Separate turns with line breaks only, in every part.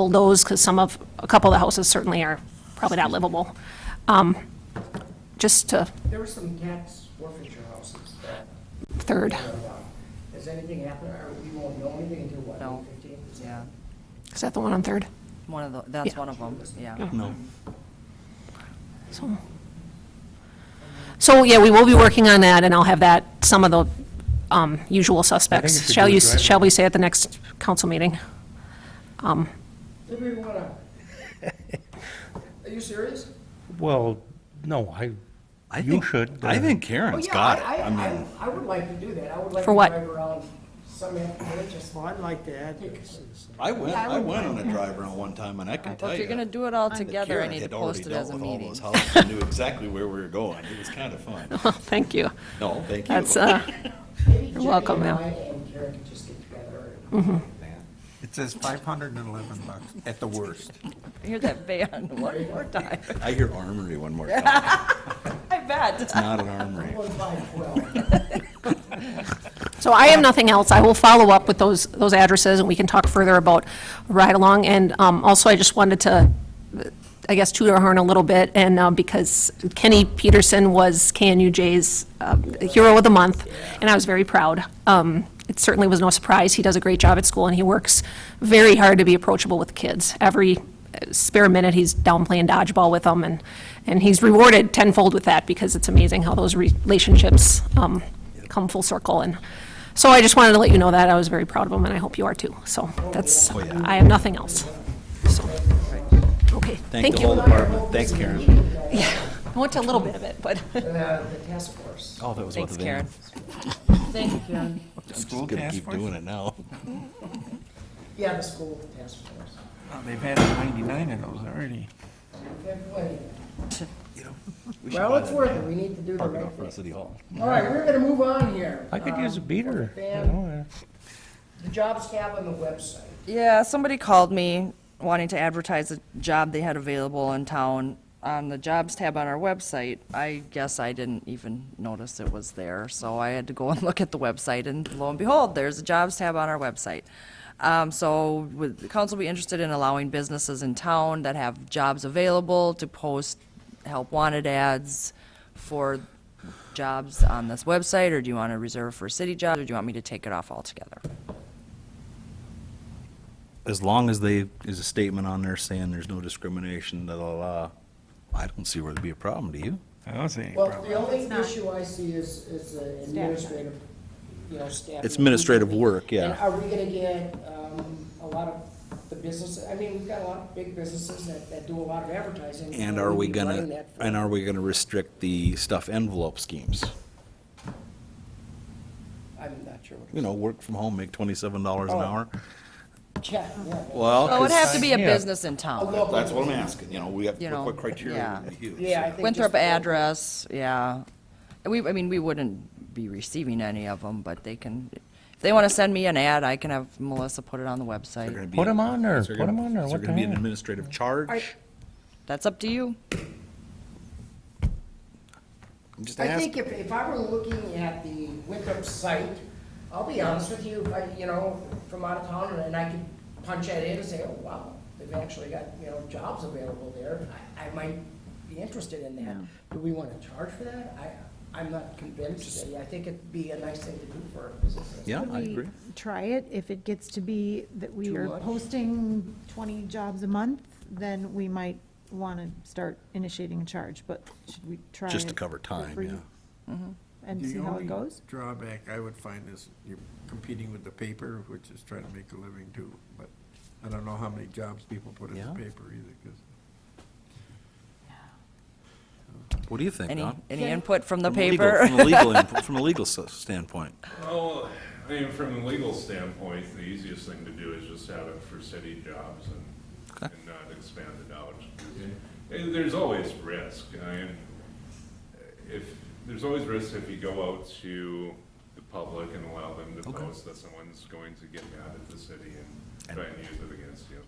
bulldoze, because some of, a couple of the houses certainly are probably not livable. Um, Just to,
There were some Gats forfeiture houses that
third,
were down. Has anything happened, or we won't know anything until what,
No.
May 15th?
Yeah,
is that the one on Third?
one of the, that's
Yeah.
one of them, yeah.
No.
So, so yeah, we will be working on that, and I'll have that, some of the um, usual
if
suspects.
we
Shall
do a
you,
drive-
shall we say at the next council meeting?
Did we wanna? Are you serious?
Well, no, I,
I
you
think-
should.
I
uh,
think
Oh,
Karen's
yeah,
got
I-
it.
I-
I mean,
I would like to do that. I would like
For
to
what?
drive around some afternoon, just.
Well, I'd like to add this. is-
I went, I went on a drive around one time and I can tell
Well,
you.
if you're gonna do it all
that
together, I
Karen
need to
had already
post it
dealt
as a
with all
meeting.
those houses and Knew exactly where we were going. It was kind of fun.
Thank you.
No, thank you.
That's, uh,
Maybe Jenny
welcome,
and
ma'am.
I And Karen can just get together.
It says five hundred and eleven bucks at the worst.
Hear that band one more time,
I hear armory one more time.
I bet.
Not an armory.
One by twelve.
So I have nothing else. I will follow up with those, those addresses, and we can talk further about ride-along. And um, also, I just wanted to, I guess, toot our horn a little bit, and uh, because Kenny Peterson was KNUJ's um, Hero of the Month, and I was very proud. Um, It certainly was no surprise. He does a great job at school, and he works very hard to be approachable with kids. Every spare minute, he's down playing dodgeball with them, and, and he's rewarded tenfold with that, because it's amazing how those relationships um, come full circle. And so I just wanted to let you know that. I was very proud of him, and I hope you are too. So that's,
Oh,
I have nothing else. So, okay, thank
Thank the
you.
whole department. Thanks, Karen.
I went to a little bit of it, but.
Mm-hmm.
uh, The the task force.
Oh, that was
Thanks, Karen.
I'm just gonna keep doing it now.
Yeah, the school task force.
Oh, They've had ninety-nine of those already.
We've had plenty.
We should
Well,
buy
it's
that
worth it. We need to do the
Parking
right
lot for
thing.
the city hall.
All right, we're gonna move on here.
I could use a beater, you
Van-
know, uh,
The jobs tab on the website.
Yeah, somebody called me wanting to advertise a job they had available in town on the jobs tab on our website. I guess I didn't even notice it was there, so I had to go and look at the website, and lo and behold, there's a jobs tab on our website. Um, so would the council be interested in allowing businesses in town that have jobs available to post help wanted ads for jobs on this website, or do you want to reserve for city jobs, or do you want me to take it off altogether?
As long as they, there's a statement on there saying there's no discrimination, da, da, da, I don't see where there'd be a problem, do you?
I don't see any
Well,
problem.
the only issue I see is, is uh, administrative, you know, staff.
It's administrative work,
And
yeah.
are we gonna get, um, a lot of the businesses, I mean, we've got a lot of big businesses that, that do a lot of advertising.
And are we
We'd be running
gonna,
that for-
and are we gonna restrict the stuff envelope schemes?
I'm not sure what.
You know, work from home, make twenty-seven dollars an
Oh.
hour?
Yeah, yeah.
Well.
Well, it would have to be a
Yeah.
business in
A
town.
local-
That's what I'm asking, you know, we have,
You know,
what criteria
yeah.
would we use?
Yeah, I think.
Winthrop
just-
address, yeah. We, I mean, we wouldn't be receiving any of them, but they can, if they want to send me an ad, I can have Melissa put it on the
They're gonna
website.
be-
Put 'em on there,
is
put 'em
gonna-
on there,
Is
what
there
the
gonna be an
heck?
administrative charge?
That's up to you.
I'm just
I think
asking.
if, if I were looking at the Winthrop site, I'll be honest with you, I, you know, from out of town, and I could punch that in and say, oh, wow, they've actually got, you know, jobs available there, I, I might be interested in that. Do we wanna charge for that? I, I'm not convinced, I think it'd be a nice thing to do for a business.
Yeah,
Could
I
we
agree.
Try it. If it gets to be that we
Too
are
much?
posting 20 jobs a month, then we might want to start initiating a charge, but should we try it?
Just to cover time,
free
yeah.
And
The
see how
only
it goes?
Drawback I would find is you're competing with the paper, which is trying to make a living too, but I don't know how many jobs people put in
Yeah.
the paper either, because
What do you think,
Any,
Don?
any input from the
From a legal-
paper?
From a legal, input- from a legal s- standpoint.
Well, I mean, from a legal standpoint, the easiest thing to do is just have it for city jobs and,
Okay.
and not expand it out. And There's always risk, I mean, if, there's always risk if you go out to the public and allow them to
Okay.
post that someone's going to get mad at the city and
And-
try and use it against you.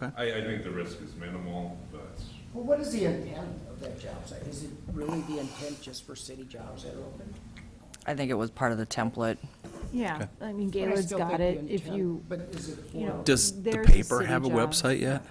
Okay.
I, I think the risk is minimal, but
Well, what is the intent of that job site? Is it really the intent just for city jobs that are open?
I think it was part of the template.
Yeah, I mean,
But I
Gaylord's
still
got
think
it,
the
if
intent-
you,
But is it,
you know.
Does the
there's a
paper
city
have a
job.
website yet?